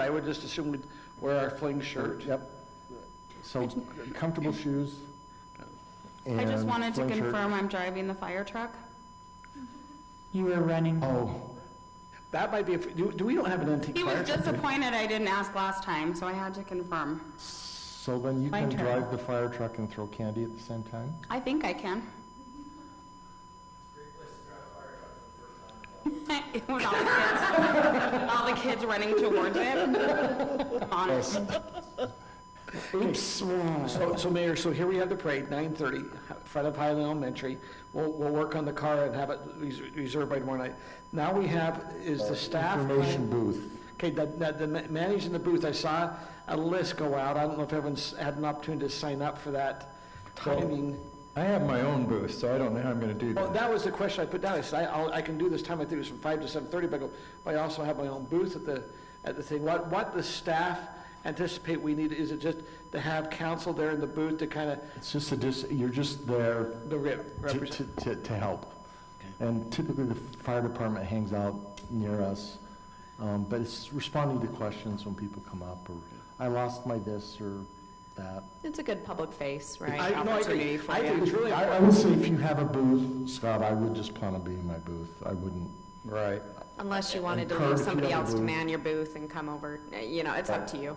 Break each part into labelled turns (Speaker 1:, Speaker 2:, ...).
Speaker 1: I would just assume we'd wear our fling shirt.
Speaker 2: Yep. So comfortable shoes.
Speaker 3: I just
Speaker 2: and
Speaker 3: wanted to
Speaker 2: plain shirt.
Speaker 3: confirm I'm driving the fire truck.
Speaker 4: You were running.
Speaker 2: Oh,
Speaker 1: That might be, a- do, do we don't have an antique
Speaker 3: He
Speaker 1: fire?
Speaker 3: was disappointed I didn't ask last time, so I had to confirm.
Speaker 2: so then you
Speaker 4: My
Speaker 2: can
Speaker 4: turn.
Speaker 2: drive the fire truck and throw candy at the same time?
Speaker 3: I think I can. It was all the kids, all the kids running towards it. On it.
Speaker 1: Oops. So, so Mayor, so here we have the parade, nine thirty, in front of Highland Elementary. We'll, we'll work on the car and have it res- reserved by tomorrow night. Now we have, is the staff.
Speaker 2: Information booth.
Speaker 1: Okay, the, the- the ma- managing the booth, I saw a list go out. I don't know if everyone's had an opportunity to sign up for that timing.
Speaker 5: I have my own booth, so I don't know how I'm gonna do
Speaker 1: Well,
Speaker 5: that.
Speaker 1: Oh, that was the question I put down. I said, I, I'll- I can do this time, I think it was from five to seven thirty, but I go, but I also have my own booth at the, at the thing. What, what the staff anticipate we need, is it just to have council there in the booth to kind of,
Speaker 2: It's just a, dis- you're just there
Speaker 1: the rep,
Speaker 2: to,
Speaker 1: represent?
Speaker 2: to, to- to help. And typically, the fire department hangs out near us, um, but it's responding to questions when people come up, or, I lost my this or that.
Speaker 6: It's a good public face,
Speaker 1: I,
Speaker 6: right?
Speaker 1: no, I
Speaker 6: Opportunity
Speaker 1: agree.
Speaker 6: for
Speaker 1: I
Speaker 6: you.
Speaker 1: think it's really,
Speaker 2: I, I would say if you have a booth, Scott, I would just plan on being in my booth. I wouldn't,
Speaker 5: Right.
Speaker 6: Unless you wanted to
Speaker 2: E- Encourage
Speaker 6: leave somebody
Speaker 2: people to
Speaker 6: else to
Speaker 2: move.
Speaker 6: man your booth and come over, eh, you know, it's up to you.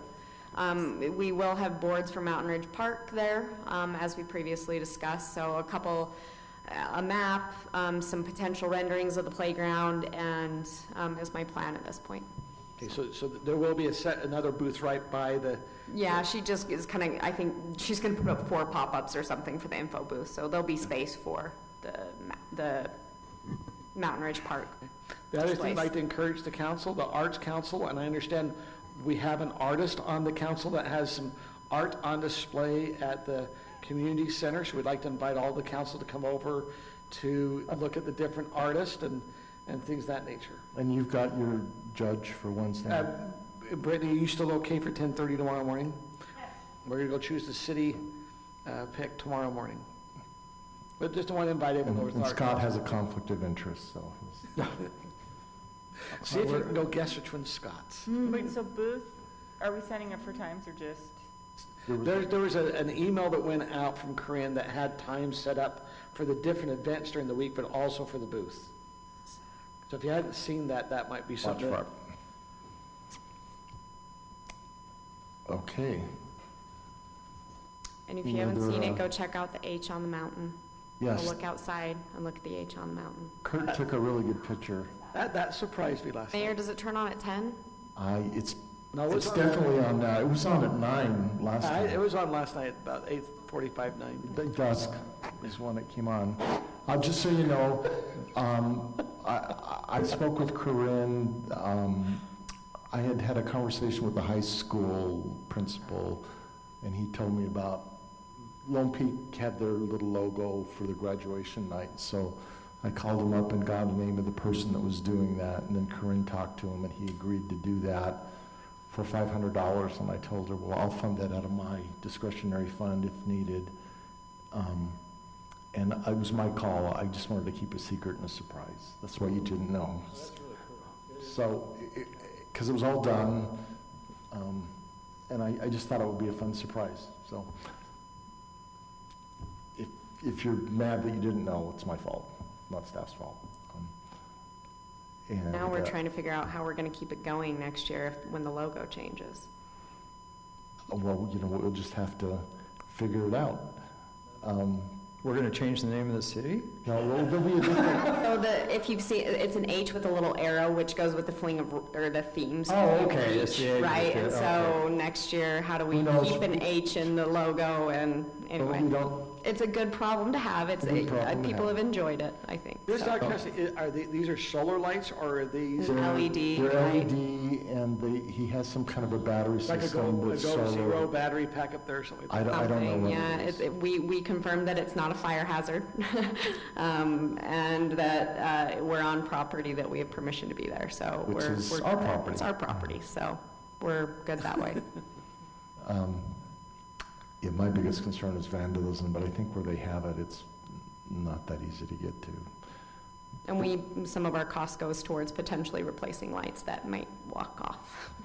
Speaker 6: Um, We will have boards for Mountain Ridge Park there, um, as we previously discussed, so a couple, eh, a map, um, some potential renderings of the playground, and um, is my plan at this point.
Speaker 1: okay, so, so there will be a set, another booth right by the,
Speaker 6: Yeah, she just is kind of, I think, she's going to put up four pop-ups or something for the info booth, so there'll be space for the, ma- the Mountain Ridge Park.
Speaker 1: The other thing I'd
Speaker 6: Twice.
Speaker 1: like to encourage the council, the Arts Council, and I understand we have an artist on the council that has some art on display at the community center, so we'd like to invite all the council to come over to look at the different artists and, and things of that nature.
Speaker 2: and you've got your judge for Wednesday.
Speaker 1: Uh,
Speaker 2: night.
Speaker 1: Brittany, are you still okay for 10:30 tomorrow morning? We're gonna go choose the city uh, pick tomorrow morning. But just want to invite
Speaker 2: And
Speaker 1: everyone over to
Speaker 2: and
Speaker 1: the
Speaker 2: Scott
Speaker 1: art.
Speaker 2: has a conflict of interest, so he's.
Speaker 1: See if you can go guess which one's Scott's.
Speaker 7: Wait, so booth, are we signing up for times or just?
Speaker 2: there was-
Speaker 1: There, there was a, an email that went out from Corinne that had times set up for the different events during the week, but also for the booth. So if you hadn't seen that, that might be
Speaker 2: Watch
Speaker 1: something.
Speaker 2: for it. Okay,
Speaker 6: And if you
Speaker 2: You know,
Speaker 6: haven't
Speaker 2: there
Speaker 6: seen
Speaker 2: are-
Speaker 6: it, go check out the H on the mountain. Go
Speaker 2: yes,
Speaker 6: Look outside and look at the H on the mountain.
Speaker 2: Kurt took a really good picture.
Speaker 1: That, that surprised me last night.
Speaker 6: Mayor, does it turn on at 10?
Speaker 2: I, it's,
Speaker 1: No, it
Speaker 2: it's
Speaker 1: was, on-
Speaker 2: definitely on, uh, it was on at nine last
Speaker 1: I- it
Speaker 2: time.
Speaker 1: was on last night, about eight forty-five, nine.
Speaker 2: The Dusk is when it came on. Uh, just so you know, um, I, I- I spoke with Corinne, um, I had had a conversation with the high school principal, and he told me about Lone Peak had their little logo for the graduation night, so I called him up and got a name of the person that was doing that, and then Corinne talked to him, and he agreed to do that for five hundred dollars, and I told her, well, I'll fund that out of my discretionary fund if needed. Um, and it was my call, I just wanted to keep a secret and a surprise, that's why you didn't know. So, because it was all done, um, and I, I just thought it would be a fun surprise, so. If, if you're mad that you didn't know, it's my fault, not staff's fault. Um, And,
Speaker 6: Now
Speaker 2: uh,
Speaker 6: we're trying to figure out how we're going to keep it going next year if- when the logo changes.
Speaker 2: Well, you know, we'll just have to figure it out. Um,
Speaker 5: We're gonna change the name of the city?
Speaker 2: No, well, there'll be a different,
Speaker 6: So the, if you've seen, it's an H with a little arrow, which goes with the fling of, or the themes.
Speaker 5: Oh, okay, it's the H,
Speaker 6: Right, and
Speaker 5: okay.
Speaker 6: so next year, how do we
Speaker 2: Who knows?
Speaker 6: keep an H in the logo and,
Speaker 2: but we
Speaker 6: anyway.
Speaker 2: don't,
Speaker 6: It's a good problem to have, it's,
Speaker 2: A good
Speaker 6: uh,
Speaker 2: problem to
Speaker 6: people
Speaker 2: have.
Speaker 6: have enjoyed it, I think.
Speaker 1: This,
Speaker 6: so.
Speaker 1: Dr. Kessy, i- are the- these are solar lights or are these?
Speaker 6: An LED
Speaker 2: they're
Speaker 6: light.
Speaker 2: LED, E and they, he has some kind of a battery
Speaker 1: Like a Go,
Speaker 2: system
Speaker 1: a
Speaker 2: with
Speaker 1: Go Zero
Speaker 2: solar.
Speaker 1: battery pack up there or something?
Speaker 2: I don't, I don't know
Speaker 6: something,
Speaker 2: what
Speaker 6: yeah.
Speaker 2: it is.
Speaker 6: It- We, we confirmed that it's not a fire hazard, um, and that uh, we're on property that we have permission to be there, so.
Speaker 2: Which
Speaker 6: we're-
Speaker 2: is
Speaker 6: we're-
Speaker 2: our property.
Speaker 6: It's our property, so we're good that way.
Speaker 2: Um, Yeah, my biggest concern is vandalism, but I think where they have it, it's not that easy to get to.
Speaker 6: And we, some of our cost goes towards potentially replacing lights that might walk off.